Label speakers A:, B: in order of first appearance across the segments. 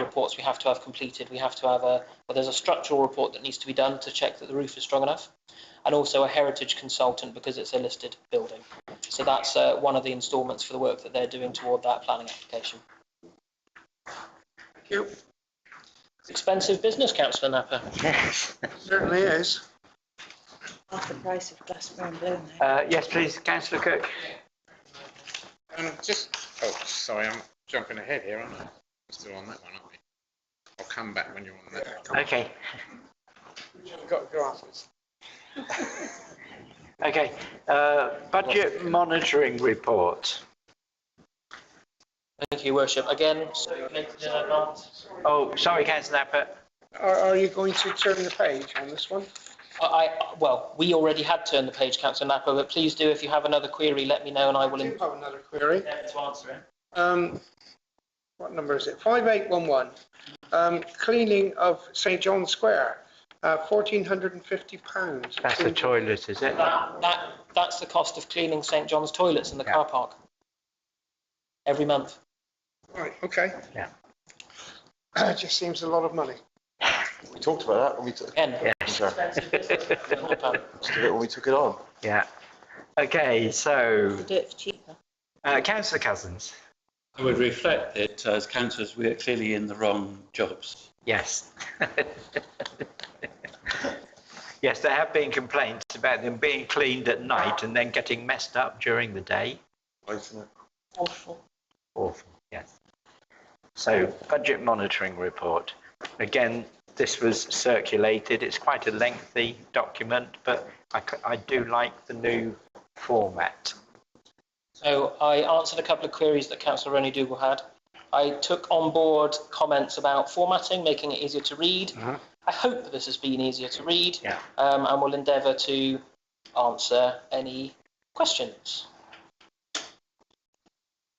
A: reports we have to have completed. We have to have a, well, there's a structural report that needs to be done to check that the roof is strong enough, and also a heritage consultant because it's a listed building. So that's uh, one of the instalments for the work that they're doing toward that planning application.
B: Thank you.
A: It's expensive business, councillor Napper.
C: Yes.
B: Certainly is.
D: half the price of Glasgow and Bloom. though.
C: Uh, Yes, please, councillor Cook.
E: Um, just, oh, sorry, I'm jumping ahead here, aren't I? We're Still on that one, aren't we? I'll come back when you're on that one.
C: Okay,
E: Got go afterwards.
C: okay. Uh, Budget monitoring report.
A: Thank you, Worship. Again, so noted in advance.
C: Oh, sorry, councillor Napper.
B: Are, are you going to turn the page on this one?
A: I, I- well, we already had turned the page, councillor Napper, but please do, if you have another query, let me know and I will
B: I do
A: endeavour
B: have another query.
A: to answer it.
B: Um, what number is it? Five eight one one. Um, cleaning of St John's Square, uh, fourteen hundred and fifty pounds.
C: That's the toilet, is it?
A: That, that, that's the cost of cleaning St John's toilets in the
C: Yeah.
A: car park. Every month.
B: Right, okay.
C: Yeah.
B: It just seems a lot of money.
F: We talked about that when we took,
A: Again,
C: Yes.
A: expensive business.
F: when we took it on.
C: Yeah. Okay, so,
D: They do it for cheaper.
C: uh, councillor Cousins.
G: I would reflect that uh, as councillors, we are clearly in the wrong jobs.
C: Yes. Yes, there have been complaints about them being cleaned at night and then getting messed up during the day.
F: Wasn't it?
D: Awful.
C: Awful, yes. So budget monitoring report. Again, this was circulated. It's quite a lengthy document, but I, c- I do like the new format.
A: So I answered a couple of queries that councillor Ronnie Dougal had. I took on board comments about formatting, making it easier to read.
C: Mhm.
A: I hope that this has been easier to read.
C: Yeah.
A: Um, and will endeavour to answer any questions.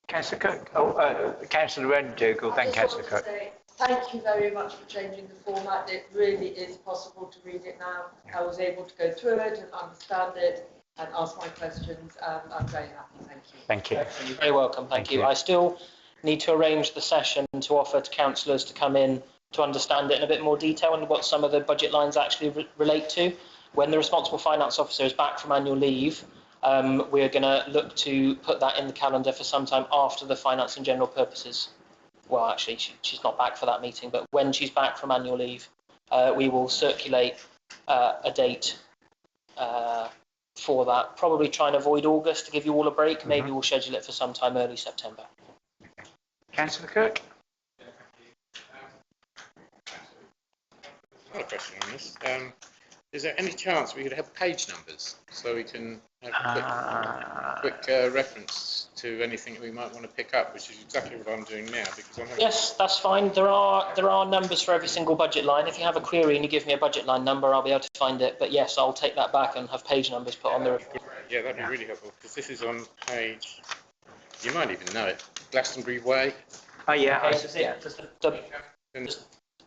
C: Councillor Cook, oh, uh, Councillor Rendell,
H: I
C: then
H: just
C: Councillor
H: wanted to
C: Cook.
H: say Thank you very much for changing the format. It really is possible to read it now. I was able to go through it and understand it and ask my questions. Um, I'm very happy, thank you.
C: Thank you.
A: You're very welcome, thank
C: Thank
A: you.
C: you.
A: I still need to arrange the session to offer to councillors to come in to understand it in a bit more detail and what some of the budget lines actually re- relate to. When the responsible finance officer is back from annual leave, um, we're going to look to put that in the calendar for sometime after the finance and general purposes. Well, actually, she, she's not back for that meeting, but when she's back from annual leave, uh, we will circulate uh, a date uh, for that. Probably try and avoid August to give you all a break. Maybe we'll schedule it for sometime early September.
C: Councillor Cook?
E: Another question on this. Um, is there any chance we could have page numbers so we can have
C: Ah,
E: a quick, quick uh, reference to anything that we might want to pick up, which is exactly what I'm doing now because I'm having.
A: Yes, that's fine. There are there are numbers for every single budget line. If you have a query and you give me a budget line number, I'll be able to find it. But yes, I'll take that back and have page numbers put on the report.
E: Yeah, that'd be really helpful because this is on page, you might even know it, Glastonbury Way.
C: Oh, yeah, I
A: Okay,
C: s-
A: does it- does the- the-
E: And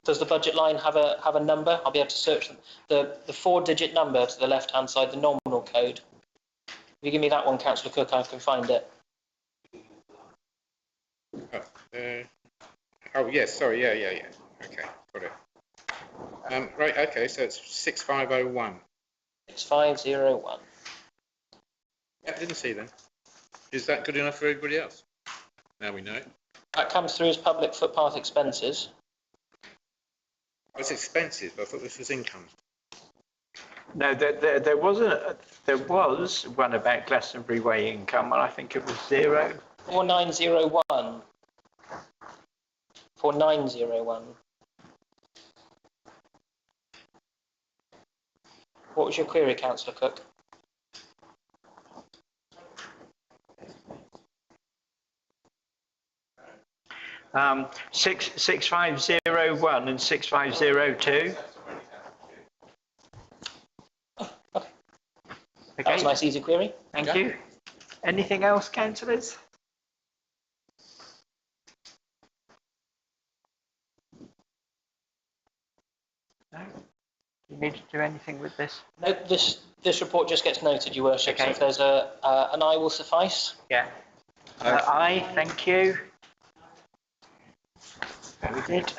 A: Does the budget line have a have a number? I'll be able to search them. The the four digit number to the left hand side, the nominal code. If you give me that one, Councillor Cook, I can find it.
E: Uh, Oh, yes, sorry, yeah, yeah, yeah. Okay, got it. Um, Right, okay, so it's 6501.
A: Six five zero one.
E: Yeah, didn't see then. Is that good enough for everybody else? Now we know. it.
A: That comes through as public footpath expenses.
E: It's expenses, but I thought this was income.
C: no, there, there, there was a, there was one about Glastonbury Way income, and I think it was zero.
A: 4901. 4901. What was your query, councillor Cook?
C: Um, six, six five zero one and six five zero two.
A: That was a
C: Okay,
A: nice, easy query.
C: thank you. Anything else, councillors? No? You need to do anything with this?
A: No, this, this report just gets noted, your worship, so
C: Okay.
A: if there's a, uh, an aye will suffice.
C: Yeah.
F: Aye.
C: Uh, Aye, thank you. we did.